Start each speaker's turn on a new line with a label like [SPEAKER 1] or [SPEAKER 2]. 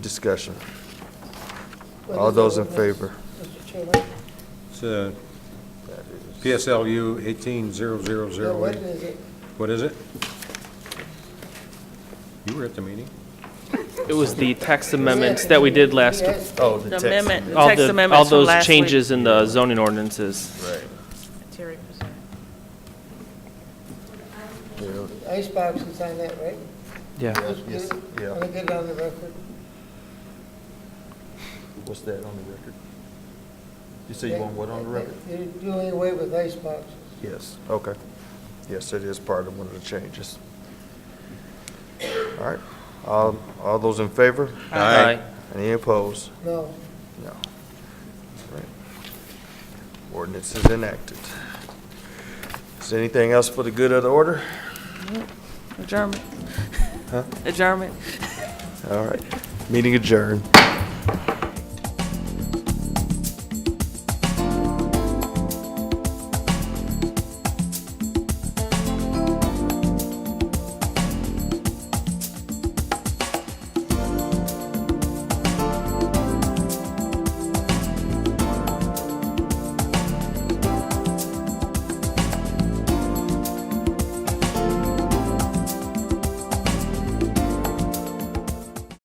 [SPEAKER 1] Discussion. All those in favor?
[SPEAKER 2] Mr. Chairman,
[SPEAKER 3] It's uh, PSLU eighteen zero zero
[SPEAKER 2] yeah,
[SPEAKER 3] zero
[SPEAKER 2] what
[SPEAKER 3] eight.
[SPEAKER 2] is it?
[SPEAKER 3] What is it? You were at the meeting?
[SPEAKER 4] It was the tax amendments that we did last,
[SPEAKER 2] Yes,
[SPEAKER 1] Oh, the
[SPEAKER 5] The
[SPEAKER 1] text.
[SPEAKER 5] amendment, the
[SPEAKER 4] all
[SPEAKER 5] text
[SPEAKER 4] the,
[SPEAKER 5] amendments
[SPEAKER 4] all
[SPEAKER 5] from
[SPEAKER 4] those
[SPEAKER 5] last week.
[SPEAKER 4] changes in the zoning ordinances.
[SPEAKER 1] Right.
[SPEAKER 5] Terry presented.
[SPEAKER 1] Yeah,
[SPEAKER 2] Icebox is on that, right?
[SPEAKER 4] Yeah.
[SPEAKER 2] Let's
[SPEAKER 1] yes,
[SPEAKER 2] get it-
[SPEAKER 1] yeah.
[SPEAKER 2] Wanna get it on the record?
[SPEAKER 1] What's that on the record? You say you want what on the record?
[SPEAKER 2] You're doing away with iceboxes.
[SPEAKER 1] Yes, okay. Yes, it is part of one of the changes. All right, Um, all those in favor?
[SPEAKER 3] Aye.
[SPEAKER 1] Any opposed?
[SPEAKER 2] No,
[SPEAKER 1] No. Right. Ordinance is enacted. Is there anything else for the good of the order?
[SPEAKER 5] Adjournment. Adjournment.
[SPEAKER 1] All right, meeting adjourned.